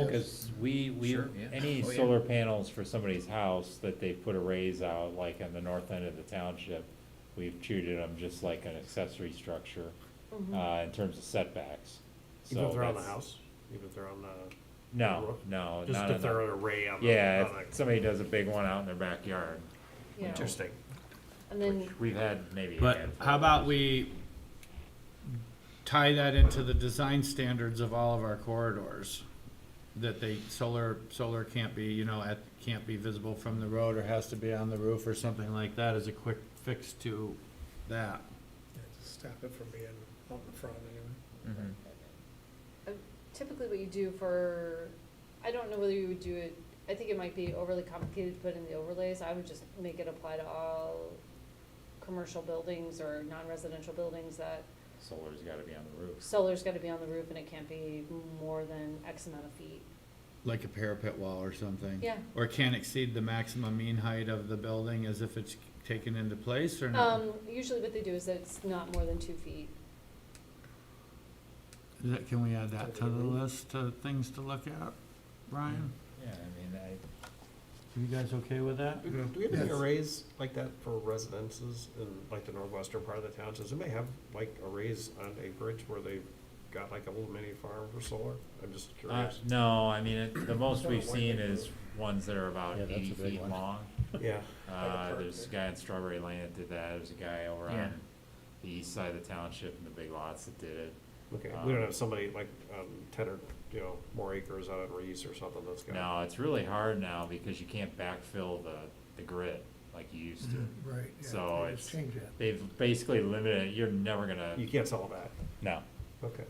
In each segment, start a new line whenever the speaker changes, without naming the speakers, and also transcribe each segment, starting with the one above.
Cause we, we,
Sure, yeah.
any
Oh, yeah.
solar panels for somebody's house that they put arrays out, like on the north end of the township, we've treated them just like an accessory structure, uh, in terms of setbacks.
Even if
So
they're on the
that's-
house, even if they're on the,
No, no,
just
not
if
on
they're
the,
an array on the.
yeah,
on
if
the-
somebody does a big one out in their backyard,
Yeah.
Interesting.
And
which
then,
we've had maybe. a
But
handful
how
of
about
those.
we tie that into the design standards of all of our corridors? That they, solar, solar can't be, you know, at, can't be visible from the road or has to be on the roof or something like that as a quick fix to that.
Yeah, to stop it from being out in front anyway.
Mhm.
uh, typically what you do for, I don't know whether you would do it, I think it might be overly complicated to put in the overlays, I would just make it apply to all commercial buildings or non-residential buildings that
Solar's gotta be on the roof.
solar's gotta be on the roof and it can't be more than X amount of feet.
Like a parapet wall or something?
Yeah.
Or can't exceed the maximum mean height of the building as if it's taken into place or not?
Um, usually what they do is that it's not more than two feet.
Is that- Can we add that to the list of things to look at, Brian?
Yeah, I mean, I,
You guys okay with that?
Do we have any
Yes.
arrays like that for residences in like the northwestern part of the town? Does anybody have like arrays on acreage where they've got like a little mini farm for solar? I'm just
uh,
curious.
no, I mean, it- the most
Kinda
we've
white
seen
paper.
is ones that are about
Yeah, that's
eighty
a big
feet
one.
long.
Yeah,
Uh,
park
there's a guy in Strawberry Lane that did that, there's a guy over
Yeah.
on the east side of the township in the big lots that did it.
okay. We don't have somebody like, um, ten or, you know, more acres out on Reese or something that's got.
Now, it's really hard now because you can't backfill the, the grid like you used to.
Right, yeah.
So
they just
it's-
Change that.
They've basically limited, it. you're never gonna,
You can't sell that.
no.
Okay.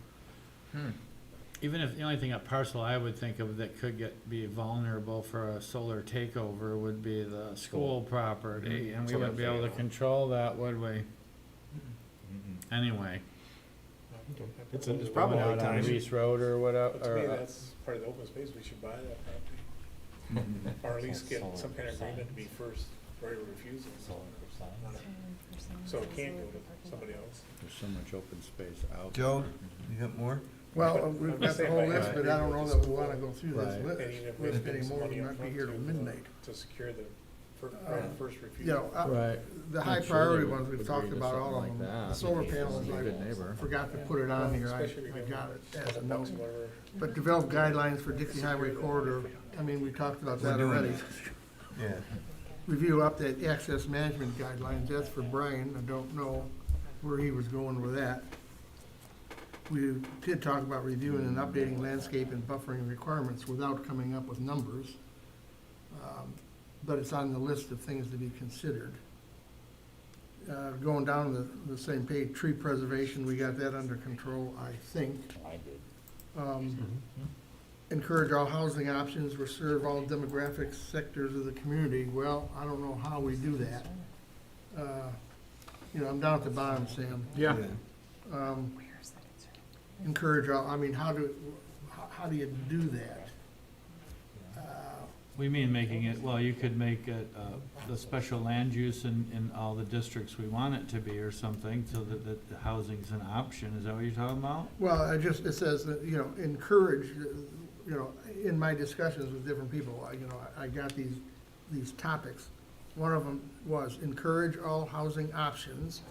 Even if, the only thing a parcel I would think of that could get, be vulnerable for a solar takeover would be the school property, and we wouldn't be able to control that, would we?
Mm-mm.
Anyway.
It's, it's
To
probably
out
not
on
time.
Reese Road or whatever,
me,
or, uh,
that's part of the open space, we should buy that property,
Mm-hmm.
or at least get some kind of agreement to be first, right of refusal.
Solar for signs.
So it can go to somebody else.
there's so much open space out.
Joe, you got more?
uh,
Well, we've got the whole list, but I don't know that we wanna go through
Right.
this
And
list,
even if we have
list
to pay some
anymore,
money
we
up
might be
front
here till
to, uh,
midnight. Uh,
To secure the fir- right of first
You
refusal.
know, I-
Right.
uh, the high
I'm sure
priority
they would
ones, we've
agree
talked
to
about
something
all
like
of them. The
that.
solar
He's a
panels,
good
I
neighbor.
forgot to put it on here, I,
Especially if
I
you
got it as a
couple bucks,
note.
whatever.
But develop guidelines for Dixie Highway Corridor, I mean, we talked about that already.
Yeah.
Review update access management guidelines, that's for Brian, I don't know where he was going with that. We did talk about reviewing and updating landscape and buffering requirements without coming up with numbers. Um, But it's on the list of things to be considered. Uh, going down the, the same page, tree preservation, we got that under control, I think.
I did.
Um, Encourage all housing options, or serve all demographic sectors of the community. Well, I don't know how we do that. Uh, You know, I'm down at the bottom, Sam.
Yeah.
Um, Encourage all, I mean, how do, how- how do you do that? Uh,
We mean making it, well, you could make it, uh, the special land use in, in all the districts we want it to be or something, so that, that the housing's an option, is that what you're talking about?
Well, I just, it says that, you know, encourage, uh, you know, in my discussions with different people, I, you know, I I got these, these topics. One of them was encourage all housing options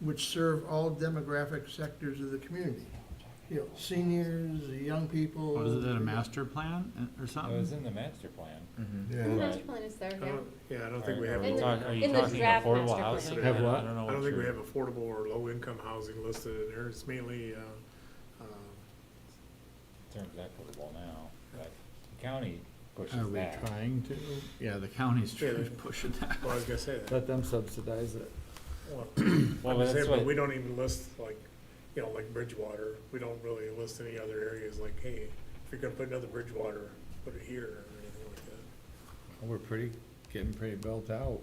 which serve all demographic sectors of the community. You know, seniors, the young people.
Or is it Oh, a master plan uh, or
It
Oh,
was
something?
in the master plan.
mm-hmm.
The
Yeah.
master plan is there,
I
Uh-huh.
yeah.
don't- Yeah, I don't think we
Are-
have.
are
a-
we talk- Are you
in the
talking
draft master
affordable
plan.
housing?
Have
don't
what?
know
I don't
what
think we
you're-
have affordable or low-income housing listed in there, it's mainly, uh, uh,
Terms equitable now, but the county
Are
pushes
Oh, we
that.
trying to? Yeah, the county's trying to push it that.
well, I was gonna say that.
Let them subsidize it.
Well,
Well,
I'm
but
just
that's
saying, but
what,
we don't even list, like, you know, like Bridgewater, we don't really list any other areas, like, hey, if you're gonna put another Bridgewater, put it here, or anything like that.
We're pretty, getting pretty built out.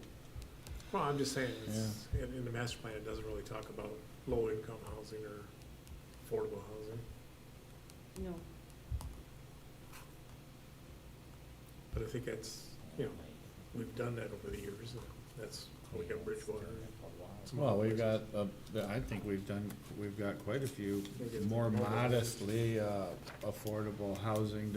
Well, I'm just saying, it's, in, in the master plan, it doesn't really talk about low-income housing or affordable housing,
No,
but I think that's, you know, we've done that over the years, and that's how we got Bridgewater. Some
Well,
other
we've got,
places.
uh, I think we've done, we've got quite a few
We'll get
more
more of those.
modestly, uh, affordable housing